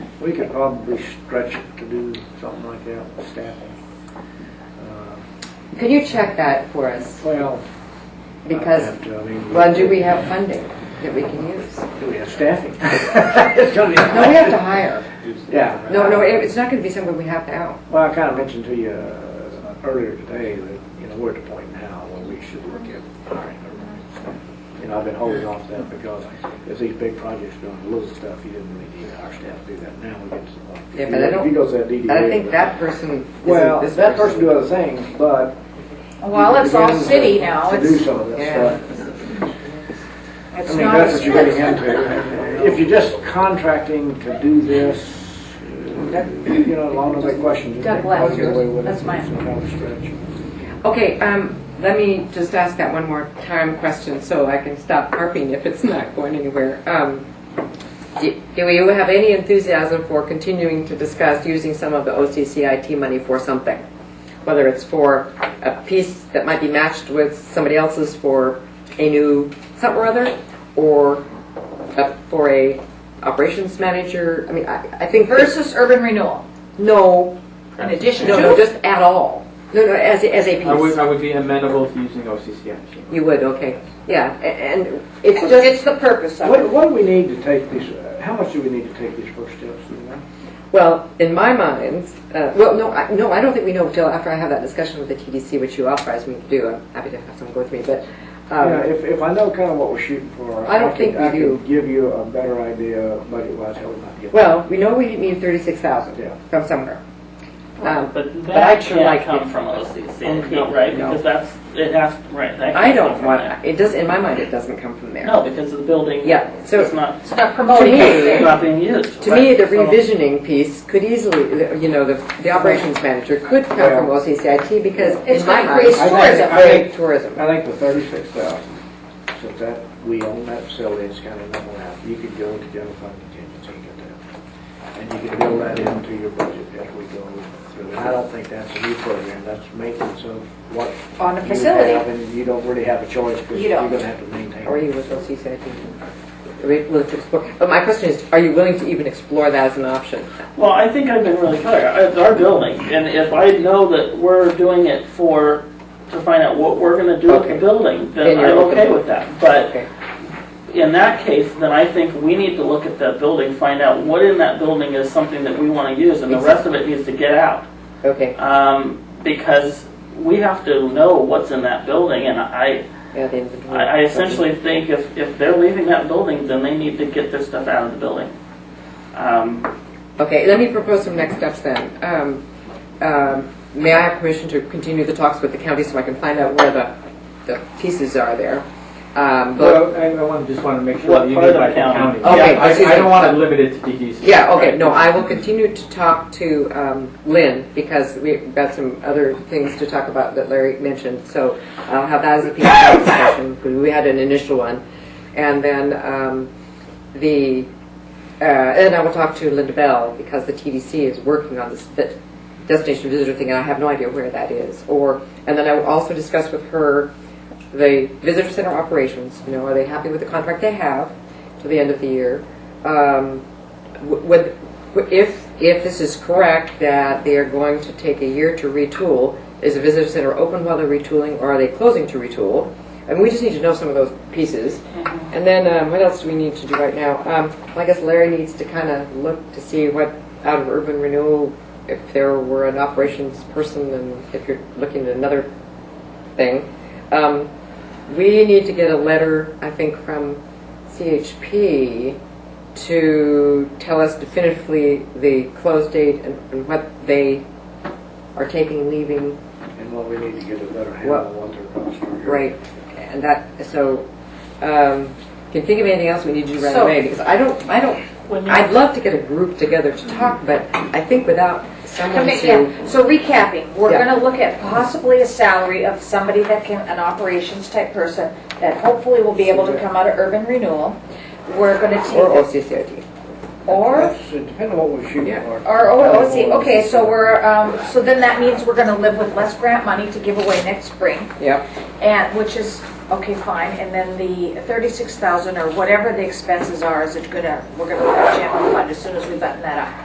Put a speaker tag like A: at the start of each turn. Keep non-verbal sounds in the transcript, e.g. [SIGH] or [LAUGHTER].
A: We could probably stretch it to do something like that with staffing. Uh,
B: Could you check that for us?
A: Well. I'd
B: Because,
A: have to, I mean,
B: well, do we have funding that we can use?
A: Do we have staffing? [LAUGHS] It's gonna be.
B: No, we have to hire.
A: Yeah.
B: No, no, it- it's not going to be something we have to out.
A: Well, I kind of mentioned to you uh, earlier today that, you know, we're at the point now where we should look at hiring. a- You know, I've been holding off that because if these big projects are doing little stuff, you didn't really need our staff to do that. Now we get to the point.
B: Yeah, but I
A: If he
B: don't-
A: goes to that DDA.
B: I think that person
A: Well,
B: isn't this
A: that person do other things, but.
C: Well, it's all
A: begins to-
C: city
B: uh,
C: now,
A: To do
C: it's,
A: some of that
B: Yeah.
A: stuff. I
C: it's
A: mean,
C: not
A: that's what
C: as
A: you're
C: good.
A: getting into. If you're just contracting to do this, you know, along with the questions.
C: Doug left. That's mine.
A: mine.
B: Okay, um, let me just ask that one more time question so I can stop harping if it's not going anywhere. Um, do do you have any enthusiasm for continuing to discuss using some of the OCCIT money for something? Whether it's for a piece that might be matched with somebody else's for a new something or other, or uh, for a operations manager? I mean, I, I think first,
C: Versus urban renewal,
B: no,
C: in addition
B: no, no,
C: to,
B: just at all. No, no, as, a- as a piece.
D: I would, I would be amenable to using OCCI.
B: You would, okay, yeah, a- and it's just,
C: it's the purpose of
A: What,
C: it.
A: what do we need to take these, uh, how much do we need to take these first steps? you know?
B: well, in my mind, uh, well, no, I, no, I don't think we know till after I have that discussion with the TDC, which you authorized me to do, I'm happy to have someone go with me, but,
C: Uh,
A: Yeah,
B: um,
A: if, if I know kind of what we're shooting for.
B: I don't
A: could-
B: think we
A: I
B: do.
A: could give you a better idea budget-wise how we might get.
B: well, we know we need thirty-six thousand
A: Yeah.
B: from somewhere. Um,
E: But
B: I'd
E: that
B: sure like
E: can't
B: it.
E: come from OCCIT,
B: no,
E: right?
B: no.
E: Because that's, it has, right, that can't
B: I
E: come
B: don't
E: from
B: want,
E: there.
B: it does, in my mind, it doesn't come from there.
E: No, because the building
B: Yeah, so-
E: is not,
C: It's not
B: To
C: promoting
B: me,
C: anything.
E: not being used.
B: to me,
E: right?
B: the
E: So-
B: revisioning piece could easily, you know, the, the operations manager could come from
A: Yeah.
B: OCCIT, because
C: It's
B: in my
C: gonna
B: mind,
C: create
A: I think-
C: tourism.
A: I think-
B: Create tourism.
A: I think the thirty-six thousand, since that, we own that facility, it's kind of number out, you could go into general fund contingency and get that. And you can build that into your budget as we go through. I don't think that's a new program, that's maintenance of what
C: On the
A: you
C: facility.
A: have, and you don't really have a choice, because
C: You
A: you're
C: don't.
A: gonna have to maintain.
B: Are
A: it.
B: you with OCCIT? Are we willing to explore? But my question is, are you willing to even explore that as an option?
E: Well, I think I've been really clear. It's our building, and if I know that we're doing it for, to find out what we're gonna do with
B: Okay.
E: the building,
B: Then
E: then
B: you're
E: I'm
B: open.
E: okay with that. But
B: Okay.
E: in that case, then I think we need to look at that building, find out what in that building is something that we wanna use, and the rest of it needs to get out.
B: Okay,
E: Um, because we have to know what's in that building, and I,
B: yeah, the inventory.
E: I I essentially think if, if they're leaving that building, then they need to get their stuff out of the building. Um,
B: Okay, let me propose some next steps then. Um, um, May I have permission to continue the talks with the county so I can find out where the, the pieces are there? Um, but-
D: Well, I, I want, just want to make sure
E: What
D: that you
E: part
D: do
E: of
D: by
E: the
D: the
E: county?
D: county.
B: Okay,
D: Yeah,
B: I see
D: I, I
B: that.
D: don't want to limit it to DDC.
B: Yeah, okay,
D: Right.
B: no, I will continue to talk to um, Lynn because we've got some other things to talk about that Larry mentioned. So I'll have that as a piece of discussion, because we had an initial one. And then um, the, uh, and I will talk to Linda Bell because the TDC is working on this fit- destination visitor thing and I have no idea where that is. Or, and then I will also discuss with her the visitor center operations, you know, are they happy with the contract they have to the end of the year? Um, w- would, if, if this is correct, that they are going to take a year to retool, is the visitor center open while they're retooling, or are they closing to retool? And we just need to know some of those pieces. And then, um, what else do we need to do right now? Um, I guess Larry needs to kind of look to see what, out of urban renewal, if there were an operations person, and if you're looking at another thing. Um, we need to get a letter, I think, from CHP to tell us definitively the close date and, and what they are taking, leaving,
A: And what we need to get a better handle on what their costs are.
B: right, and that, so, um, can you think of anything else we need to do right
C: So-
B: away? Because I don't, I don't,
E: when you-
B: I'd love to get a group together to talk, but I think without someone
C: Commit-
B: to,
C: yeah. So recapping, we're
B: Yeah.
C: going to look at possibly a salary of somebody that can, an operations type person that hopefully will be able to come out of urban renewal. We're going to
B: or
C: take,
B: OCCIT.
C: or,
A: That's, it depends on what we're shooting
B: Yeah.
A: for.
C: or, oh, oh, see, okay, so we're, um, so then that means we're going to live with less grant money to give away next spring.
B: Yep.
C: And, which is, okay, fine, and then the uh, 36,000 or whatever the expenses are, is it gonna, we're gonna look at general fund as soon as we button that up.